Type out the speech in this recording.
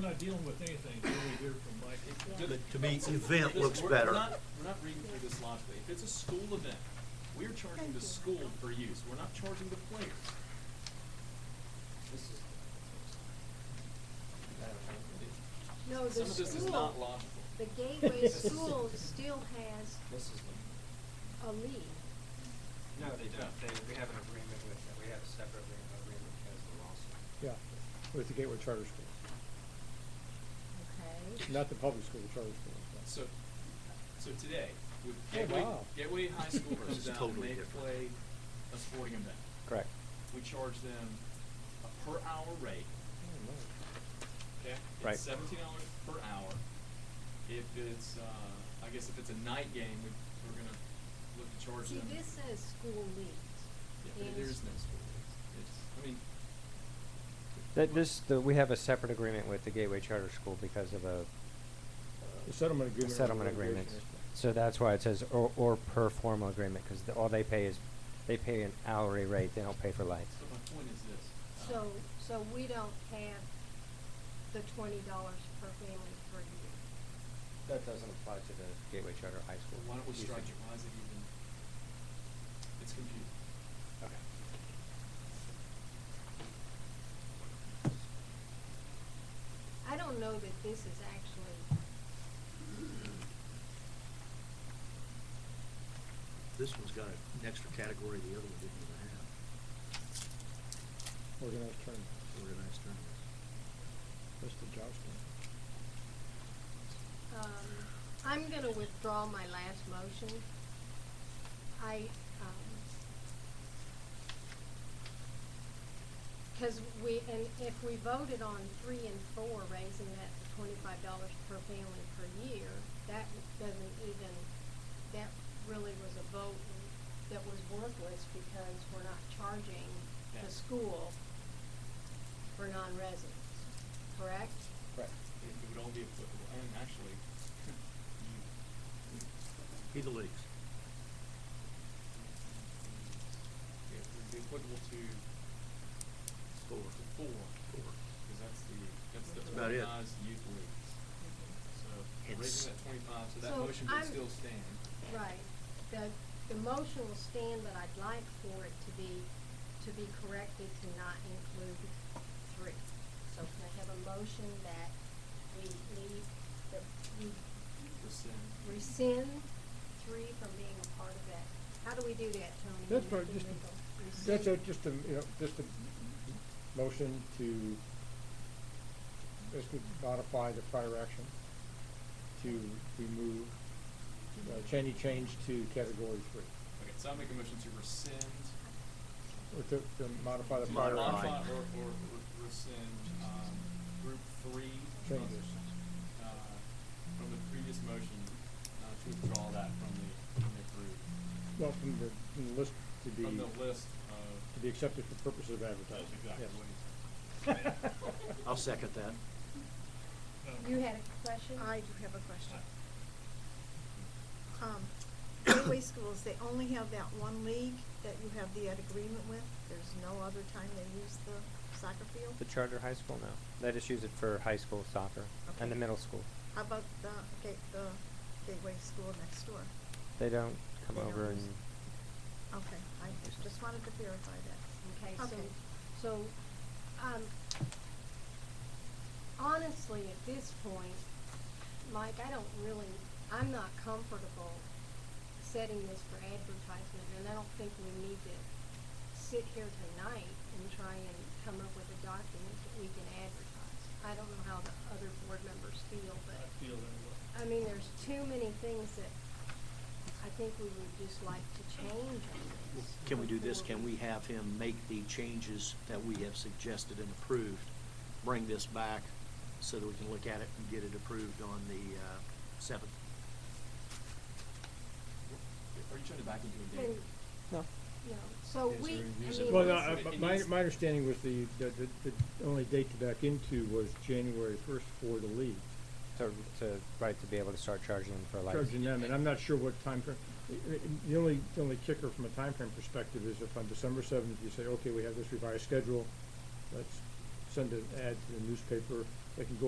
not dealing with anything until we hear from Mike. Just- But to me, just- event just- looks we're- better. We're not, we're not reading through this logically. If it's a school event, we're charging the school for use. We're not charging the players. This is- No, the Some of this is not school, logical. the Gateway School still has This is a lead. No, they don't. They, we have an agreement with, we have a separate agreement agreement with Kesler also. Yeah, with the Gateway Charter Schools, Okay. not the public school, the charter schools. So, so today, with Oh, Gateway, wow. Gateway High School It's comes out and totally they different. play a sporting event. Correct. We charge them a per hour rate. Oh, Okay? Right. It's seventeen dollars per hour. If it's, uh, I guess if it's a night game, we, we're gonna look to charge See, them. this says school Yeah, leads. but and there is no school. It's, it's, I mean. That this, the, we have a separate agreement with the Gateway Charter School because of a The settlement a agreement. settlement agreement. So that's why it says or, or per formal agreement, because the, all they pay is, they pay an hourly rate, they don't pay for lights. But my point is this. um, So, so we don't have the twenty dollars per family per year. That doesn't apply to the Gateway Charter High School. well, Why don't we strike it? Why is it even? It's confusing. I don't know that this is actually, This one's got an extra category the other one didn't even have. Organized tournament, Organized tournaments. that's the Josh um, I'm gonna withdraw my last motion. I, um, Because we, and if we voted on three and four, raising that to twenty-five dollars per family per year, that doesn't even, that really was a vote that was worthless because we're not charging Yeah. the school for non-residents, correct? Right. It it would all be applicable. I mean, actually, you, Either leagues. it would be applicable to Four. to four, because that's the, that's the That's about it. organized youth league. So It's- raising that twenty-five, so that So motion would I'm- still stand. Right. The, the motion will stand, but I'd like for it to be, to be corrected to not include three. So can I have a motion that we leave, that we Rescind. rescind three from being a part of that? How do we do that, Tony? That's Would it be right, just, legal? that's a, Rescind? just a, you know, just a motion to basically modify the prior action to remove, uh, Cheney change to category three, Okay, so I make a motion to rescind. or to, to modify the to prior Modify. action. modify Or, or re- rescind, um, group three. from- Changes. Uh, from the previous motion, uh, to withdraw that from the, from the group. Well, from the, from the list to be. From the list of. To be accepted for purposes of advertising. That's exactly yes. what he said. I'll second that. No. You had a question? I do have a question. I- Um, Gateway schools, they only have that one league that you have the ed agreement with? There's no other time they use the soccer field? The Charter High School, no. They just use it for high school soccer and the Okay. middle school. How about the gate, the Gateway school next door? They don't come They don't over use- and, Okay, I just wanted to verify that. Okay, so, Okay. so, um, honestly, at this point, Mike, I don't really, I'm not comfortable setting this for advertisement, and I don't think we need to sit here tonight and try and come up with a document that we can advertise. I don't know how the other board members feel, but, I feel that I mean, there's too many things that I think we would just like to change on this. Can we do this? before Can we have him make the changes that we have suggested and approved? Bring this back so that we can look at it and get it approved on the uh, seventh? Are you trying to back into a And, date? no. you know, so Is we, there a I reason mean. Well, It no, needs- I, it but my, needs- my understanding was the, that the, the only date to back into was January first for the league. To, to, right, to be able to start charging them for lights. Charging them, and I'm not sure what time frame. I- I- The only, the only kicker from a time frame perspective is if on December seventh, you say, okay, we have this revised schedule, let's send an ad to the newspaper, they can go